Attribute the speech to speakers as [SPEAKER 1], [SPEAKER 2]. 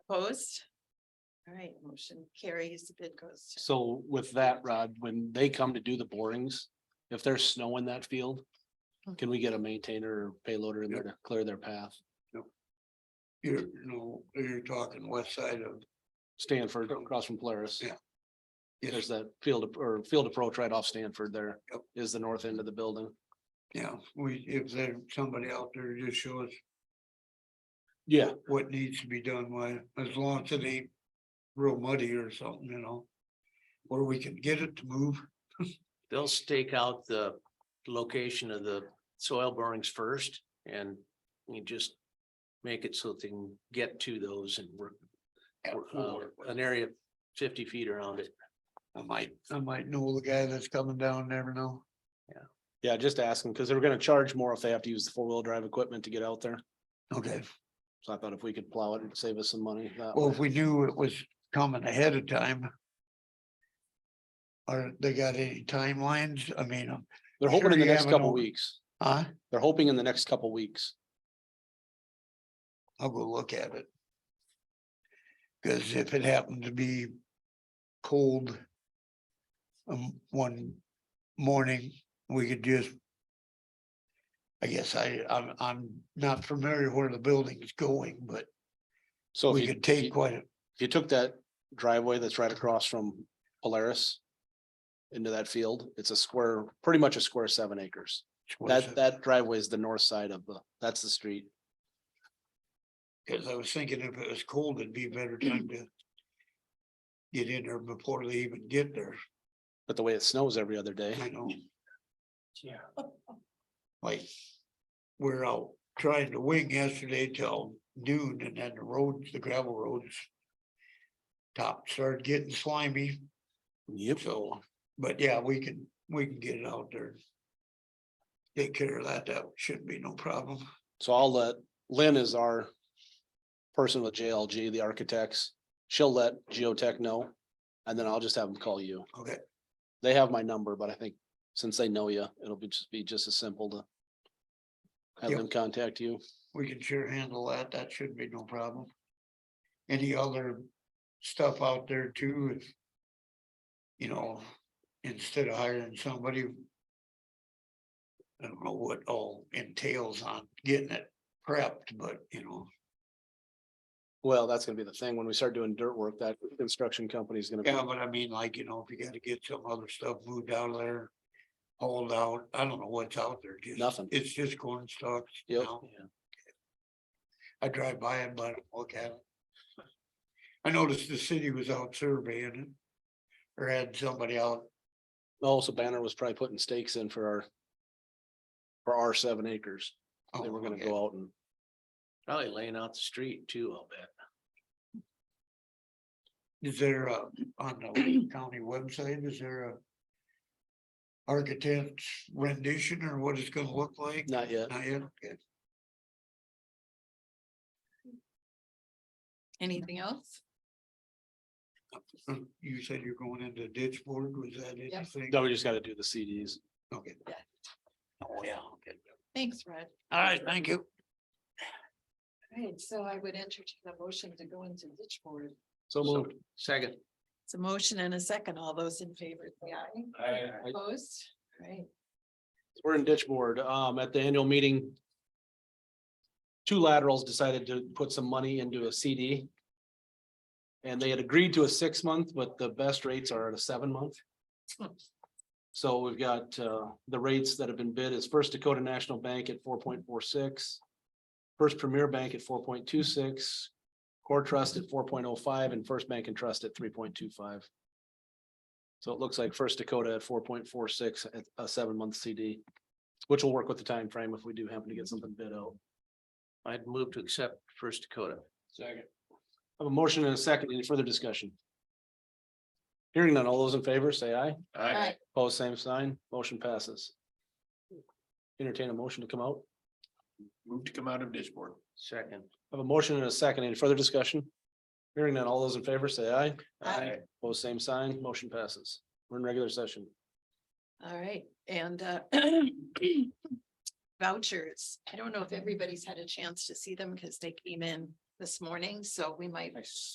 [SPEAKER 1] Opposed? All right, motion carries, the bid goes. to-
[SPEAKER 2] So with that, Rod, when they come to do the borings, if there's snow in that field, can we get a maintainer or payloader in there to clear their path?
[SPEAKER 3] You're, you know, you're talking west side of,
[SPEAKER 2] Stanford across from Polaris.
[SPEAKER 3] Yeah.
[SPEAKER 2] There's
[SPEAKER 3] yes,
[SPEAKER 2] that field ap- or field approach right off Stanford there
[SPEAKER 3] Yep.
[SPEAKER 2] is the north end of the building.
[SPEAKER 3] yeah, we, if there's somebody out there, just show us
[SPEAKER 2] Yeah.
[SPEAKER 3] what needs to be done, why, as long as it ain't real muddy or something, you know. Where we can get it to move,
[SPEAKER 4] They'll stake out the location of the soil borings first and you just make it so they can get to those and work. work, uh, An area fifty feet around it.
[SPEAKER 3] I might, I might know the guy that's coming down, never know.
[SPEAKER 2] Yeah, just asking because they're gonna charge more if they have to use the four-wheel drive equipment to get out there.
[SPEAKER 3] Okay,
[SPEAKER 2] So I thought if we could plow it and save us some money. that
[SPEAKER 3] well,
[SPEAKER 2] way.
[SPEAKER 3] if we knew it was coming ahead of time. Are they got any timelines? I mean, uh, um,
[SPEAKER 2] They're hoping
[SPEAKER 3] sure
[SPEAKER 2] in the
[SPEAKER 3] you
[SPEAKER 2] next
[SPEAKER 3] have an
[SPEAKER 2] couple
[SPEAKER 3] old-
[SPEAKER 2] weeks.
[SPEAKER 3] huh?
[SPEAKER 2] They're hoping in the next couple weeks.
[SPEAKER 3] I'll go look at it. Cause if it happened to be cold. Um, one morning, we could just. I guess I, I'm, I'm not familiar where the building's going, but
[SPEAKER 2] So if
[SPEAKER 3] we
[SPEAKER 2] you-
[SPEAKER 3] could
[SPEAKER 2] you-
[SPEAKER 3] take quite a,
[SPEAKER 2] if you took that driveway that's right across from Polaris. Into that field, it's a square, pretty much a square seven acres.
[SPEAKER 3] choice
[SPEAKER 2] That
[SPEAKER 3] of-
[SPEAKER 2] that driveway is the north side of the, that's the street.
[SPEAKER 3] cause I was thinking if it was cold, it'd be a better time to. Get in there before they even get there,
[SPEAKER 2] But the way it snows every other day,
[SPEAKER 3] I know,
[SPEAKER 4] Yeah.
[SPEAKER 3] like. We're out trying to wing yesterday till noon and then the roads, the gravel roads. Top started getting slimy,
[SPEAKER 2] yep,
[SPEAKER 3] so, but yeah, we can, we can get it out there. Take care of that, that shouldn't be no problem.
[SPEAKER 2] so I'll let, Lynn is our. Person with JLG, the architects, she'll let Geotech know, and then I'll just have them call you.
[SPEAKER 3] Okay,
[SPEAKER 2] They have my number, but I think since they know you, it'll be just be just as simple to. Have
[SPEAKER 3] Yep.
[SPEAKER 2] them contact you.
[SPEAKER 3] we can sure handle that, that should be no problem. Any other stuff out there too? if, You know, instead of hiring somebody. I don't know what all entails on getting it prepped, but you know,
[SPEAKER 2] Well, that's gonna be the thing. When we start doing dirt work, that construction company is gonna be,
[SPEAKER 3] yeah, but I mean, like, you know, if you gotta get some other stuff moved out of there. Hauled out, I don't know what's out there. just-
[SPEAKER 2] Nothing.
[SPEAKER 3] It's just corn stalks
[SPEAKER 2] Yep.
[SPEAKER 3] now. I drive by it, but I don't look at it. I noticed the city was out surveying it. Or had somebody out,
[SPEAKER 2] also Oh, Banner was probably putting stakes in for our. For our seven acres. They
[SPEAKER 3] oh,
[SPEAKER 2] were gonna
[SPEAKER 3] okay.
[SPEAKER 2] go out and,
[SPEAKER 4] Probably laying out the street too, I'll bet.
[SPEAKER 3] is there a, on the county website, is there a? Architect's rendition or what it's gonna look like?
[SPEAKER 2] not yet.
[SPEAKER 3] Not yet, okay.
[SPEAKER 1] Anything else?
[SPEAKER 3] Um, You said you're going into ditch board, was that anything?
[SPEAKER 2] No, we just gotta do the CDs.
[SPEAKER 3] Okay.
[SPEAKER 1] Yeah.
[SPEAKER 3] Oh, yeah, okay.
[SPEAKER 1] Thanks, Rod.
[SPEAKER 3] All right, thank you.
[SPEAKER 1] All right, so I would entertain a motion to go into ditch board.
[SPEAKER 2] So moved.
[SPEAKER 4] Second.
[SPEAKER 1] It's a motion and a second. All those in favor, say aye.
[SPEAKER 2] Aye.
[SPEAKER 1] Opposed? All Right.
[SPEAKER 2] We're in ditch board, um, at the annual meeting. Two laterals decided to put some money into a CD. And they had agreed to a six month, but the best rates are at a seven month. So we've got, uh, the rates that have been bid is First Dakota National Bank at four point four six. First Premier Bank at four point two six, Core Trust at four point oh five and First Bank and Trust at three point two five. So it looks like First Dakota at four point four six, a seven month CD, which will work with the time frame if we do happen to get something bid out.
[SPEAKER 4] I'd move to accept First Dakota.
[SPEAKER 2] Second. I have a motion and a second. Any further discussion? Hearing none. All those in favor, say aye.
[SPEAKER 1] Aye.
[SPEAKER 2] Pose same sign. Motion passes. Entertain a motion to come out.
[SPEAKER 4] Move to come out of ditch board. Second.
[SPEAKER 2] I have a motion and a second. Any further discussion? Hearing none. All those in favor, say aye.
[SPEAKER 1] Aye.
[SPEAKER 2] Pose same sign. Motion passes. We're in regular session.
[SPEAKER 1] All right, and uh, vouchers. I don't know if everybody's had a chance to see them because they came in
[SPEAKER 5] this morning, so we might
[SPEAKER 1] Nice.